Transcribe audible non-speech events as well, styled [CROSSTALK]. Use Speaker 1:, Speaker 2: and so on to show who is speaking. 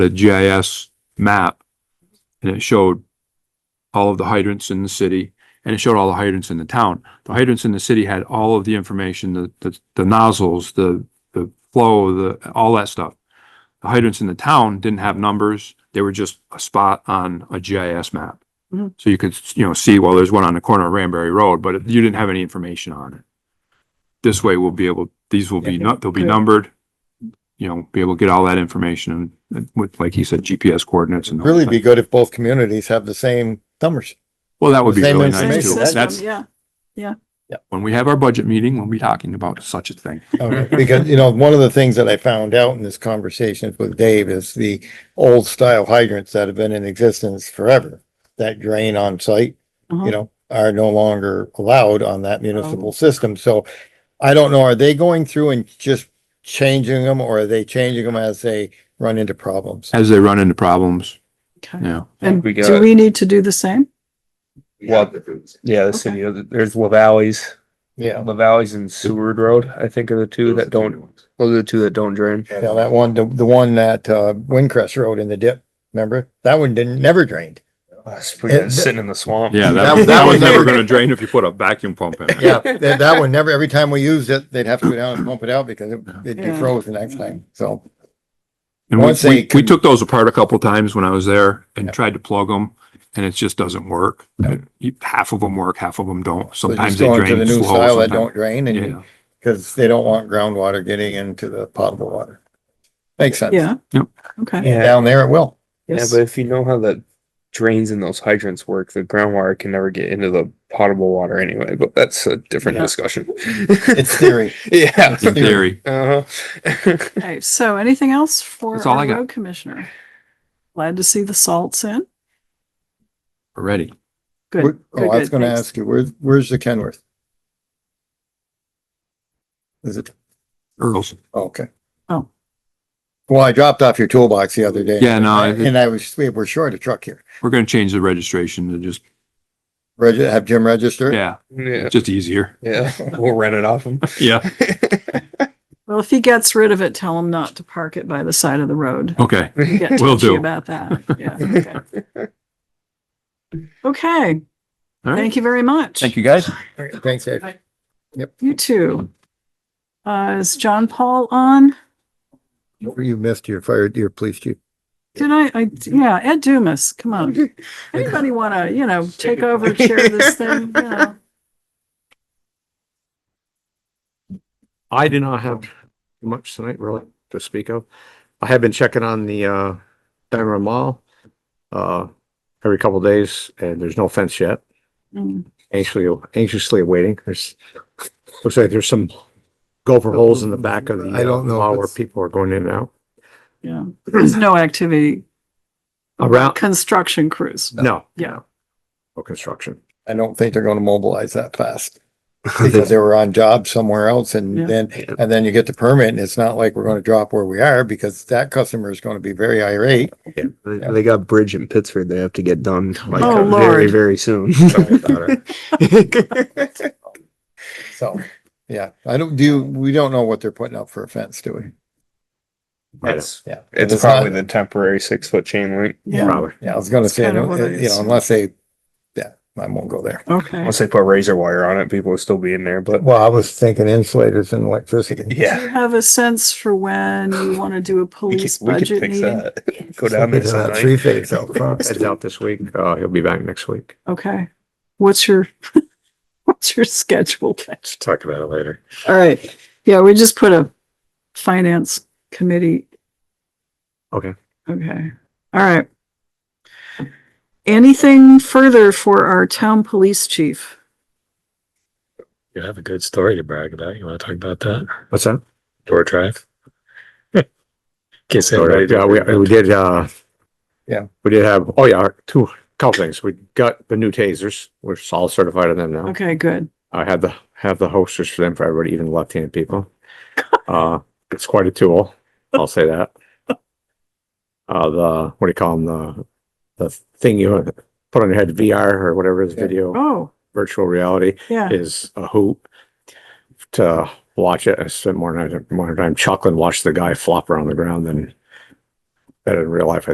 Speaker 1: the GIS map and it showed all of the hydrants in the city and it showed all the hydrants in the town. The hydrants in the city had all of the information, the, the, the nozzles, the, the flow, the, all that stuff. The hydrants in the town didn't have numbers. They were just a spot on a GIS map.
Speaker 2: Mhm.
Speaker 1: So you could, you know, see, well, there's one on the corner of Ranberry Road, but you didn't have any information on it. This way we'll be able, these will be, nu- they'll be
Speaker 2: Good.
Speaker 1: numbered. You know, be able to get all that information and with, like he said, GPS coordinates and. the whole
Speaker 3: Really
Speaker 1: thing.
Speaker 3: be good if both communities have the same numbers.
Speaker 1: Well, that would be
Speaker 3: Same
Speaker 1: really nice
Speaker 3: information.
Speaker 1: too.
Speaker 3: Same system,
Speaker 1: That's,
Speaker 2: Yeah,
Speaker 1: when we have our budget meeting, we'll be talking about such a thing.
Speaker 3: [LAUGHS] Because, you know, one of the things that I found out in this conversation with Dave is the old style hydrants that have been in existence forever. That drain on site,
Speaker 2: Uh-huh.
Speaker 3: you know, are no longer allowed on that municipal system. So I don't know, are they going through and just changing them or are they changing them as they run into problems?
Speaker 1: As they run into problems,
Speaker 2: okay.
Speaker 1: yeah.
Speaker 2: And
Speaker 4: We
Speaker 2: do
Speaker 4: got-
Speaker 2: we need to do the same?
Speaker 4: Well, yeah, the city, uh, there's La Valley's,
Speaker 3: Yeah,
Speaker 4: La Valley's and Seward Road, I think are the two that don't, those are the two that don't drain.
Speaker 3: yeah, that one, the, the one that, uh, Windcrest Road in the dip, remember? That one didn't, never drained.
Speaker 4: Sitting sitting in the swamp.
Speaker 1: Yeah, that,
Speaker 3: That-
Speaker 1: that
Speaker 3: that
Speaker 1: was
Speaker 3: was
Speaker 1: never
Speaker 3: never-
Speaker 1: gonna drain if you put a vacuum pump in it.
Speaker 3: Yeah, [LAUGHS] that, that one never, every time we used it, they'd have to go down and pump it out because it- it'd
Speaker 2: Yeah.
Speaker 3: defroze the next time, so.
Speaker 1: And we,
Speaker 3: Once they
Speaker 1: we, we
Speaker 3: can-
Speaker 1: took those apart a couple times when I was there
Speaker 3: Yeah.
Speaker 1: and tried to plug them and it just doesn't work. You- Half of them work, half of them don't.
Speaker 3: so
Speaker 1: Sometimes
Speaker 3: just
Speaker 1: they
Speaker 3: going to
Speaker 1: drain
Speaker 3: the new
Speaker 1: slow.
Speaker 3: style that
Speaker 1: sometimes-
Speaker 3: don't drain and,
Speaker 1: Yeah,
Speaker 3: because they don't want groundwater getting into the potable water. Makes sense.
Speaker 2: Yeah.
Speaker 1: Yep.
Speaker 2: Okay.
Speaker 3: And Down there
Speaker 2: [LAUGHS]
Speaker 3: it will.
Speaker 4: Yeah,
Speaker 2: Yes.
Speaker 4: but if you know how the drains in those hydrants work, the groundwater can never get into the potable water anyway, but that's a different
Speaker 2: Yeah.
Speaker 4: discussion. [LAUGHS]
Speaker 3: It's theory.
Speaker 4: Yeah.
Speaker 1: in theory.
Speaker 4: Uh-huh. [LAUGHS]
Speaker 2: Okay, so anything else for
Speaker 1: That's all I
Speaker 2: our
Speaker 1: got.
Speaker 2: road commissioner? Glad to see the salts in.
Speaker 1: Already.
Speaker 3: Where-
Speaker 2: Good.
Speaker 3: Oh, I was
Speaker 2: good, good,
Speaker 3: gonna
Speaker 2: thanks.
Speaker 3: ask you, where's, where's the Kenworth? Is it,
Speaker 1: Earls.
Speaker 3: oh, okay.
Speaker 2: Oh.
Speaker 3: Well, I dropped off your toolbox the other day.
Speaker 1: Yeah, no, I-
Speaker 3: And I was, we we're short a truck here.
Speaker 1: We're gonna change the registration to just,
Speaker 3: Reg, have Jim register? it?
Speaker 1: yeah,
Speaker 4: Yeah,
Speaker 1: just easier.
Speaker 4: yeah, we'll rent it off them.
Speaker 1: [LAUGHS] Yeah,
Speaker 2: Well, if he gets rid of it, tell him not to park it by the side of
Speaker 1: [LAUGHS]
Speaker 2: the road.
Speaker 1: okay.
Speaker 2: We get
Speaker 1: Will
Speaker 2: touchy
Speaker 1: do.
Speaker 2: About that. Yeah. okay. Okay,
Speaker 1: All right.
Speaker 2: thank you very much.
Speaker 1: Thank you, guys.
Speaker 3: Thanks, Dave.
Speaker 2: You too. Uh, is John Paul on?
Speaker 3: You missed your fire, your police chief.
Speaker 2: Did I, I, yeah, Ed Dumas, come on. Anybody want to, you know, take over, chair this thing? You know?
Speaker 5: I do not have much tonight really to speak of. I have been checking on the uh Diamond Mall uh every couple of days and there's no fence yet.
Speaker 2: Mm,
Speaker 5: Anxiously, anxiously awaiting. There's, looks like there's some gopher holes in the back of the
Speaker 3: I don't know
Speaker 5: uh,
Speaker 3: if
Speaker 5: mall where
Speaker 3: it's-
Speaker 5: people are going in and out.
Speaker 2: Yeah, there's no activity.
Speaker 5: Around,
Speaker 2: Construction crews.
Speaker 5: no.
Speaker 2: Yeah.
Speaker 5: No construction.
Speaker 3: I don't think they're gonna mobilize that fast. [LAUGHS] Because they were on job somewhere else
Speaker 2: Yeah.
Speaker 3: and then, and then you get the permit and it's not like we're gonna drop where we are because that customer is gonna be very irate.
Speaker 4: Yeah, they, they got a bridge in Pittsburgh they have to get done like
Speaker 2: Oh,
Speaker 4: uh, very,
Speaker 2: Lord.
Speaker 4: very soon.
Speaker 3: So, yeah, I don't do, we don't know what they're putting up for a fence, do we?
Speaker 4: it's,
Speaker 3: Yeah.
Speaker 4: it's
Speaker 3: not-
Speaker 4: probably the temporary six foot chain link.
Speaker 2: Yeah,
Speaker 5: Probably.
Speaker 3: Yeah, I was gonna
Speaker 2: That's
Speaker 3: say, I
Speaker 2: kind of
Speaker 3: don't-
Speaker 2: what I
Speaker 3: you know,
Speaker 2: assumed.
Speaker 3: unless they, yeah, I won't go there.
Speaker 2: okay.
Speaker 4: Unless they put razor wire on it, people would still be in there. But
Speaker 3: Well, I was thinking insulators and electricity.
Speaker 2: Do you have a sense for when you want to do a
Speaker 4: we
Speaker 2: police
Speaker 4: could, we could
Speaker 2: budget
Speaker 4: fix
Speaker 2: meeting?
Speaker 4: that. [LAUGHS] Go down there sometime.
Speaker 3: Three phase out front.
Speaker 5: Heads out this week. Uh, he'll be back next week.
Speaker 2: Okay, what's your, [LAUGHS] what's your schedule?
Speaker 5: Talk about it later.
Speaker 2: All right, yeah, we just put a finance committee.
Speaker 5: Okay.
Speaker 2: Okay, all right. Anything further for our town police chief?
Speaker 6: You have a good story to brag about. You want to talk about that?
Speaker 5: What's that?
Speaker 6: Door drive? [LAUGHS] Guess
Speaker 5: Sorry,
Speaker 6: anybody.
Speaker 5: Yeah, we, we did, uh.
Speaker 3: Yeah.
Speaker 5: We did have, oh yeah, two, couple things. We got the new tasers. We're all certified on them now.
Speaker 2: Okay, good.
Speaker 5: I had the, have the holsters for them for everybody, even left-handed people. Uh, it's quite a tool. I'll say that. Uh, the, what do you call them? The, the thing you put on your head, VR or whatever is
Speaker 3: Yeah.
Speaker 5: video,
Speaker 2: Oh,
Speaker 5: virtual reality
Speaker 2: yeah,
Speaker 5: is a hoot to watch it. I spent more than more time chuckling, watch the guy flop around the ground than better in real life, I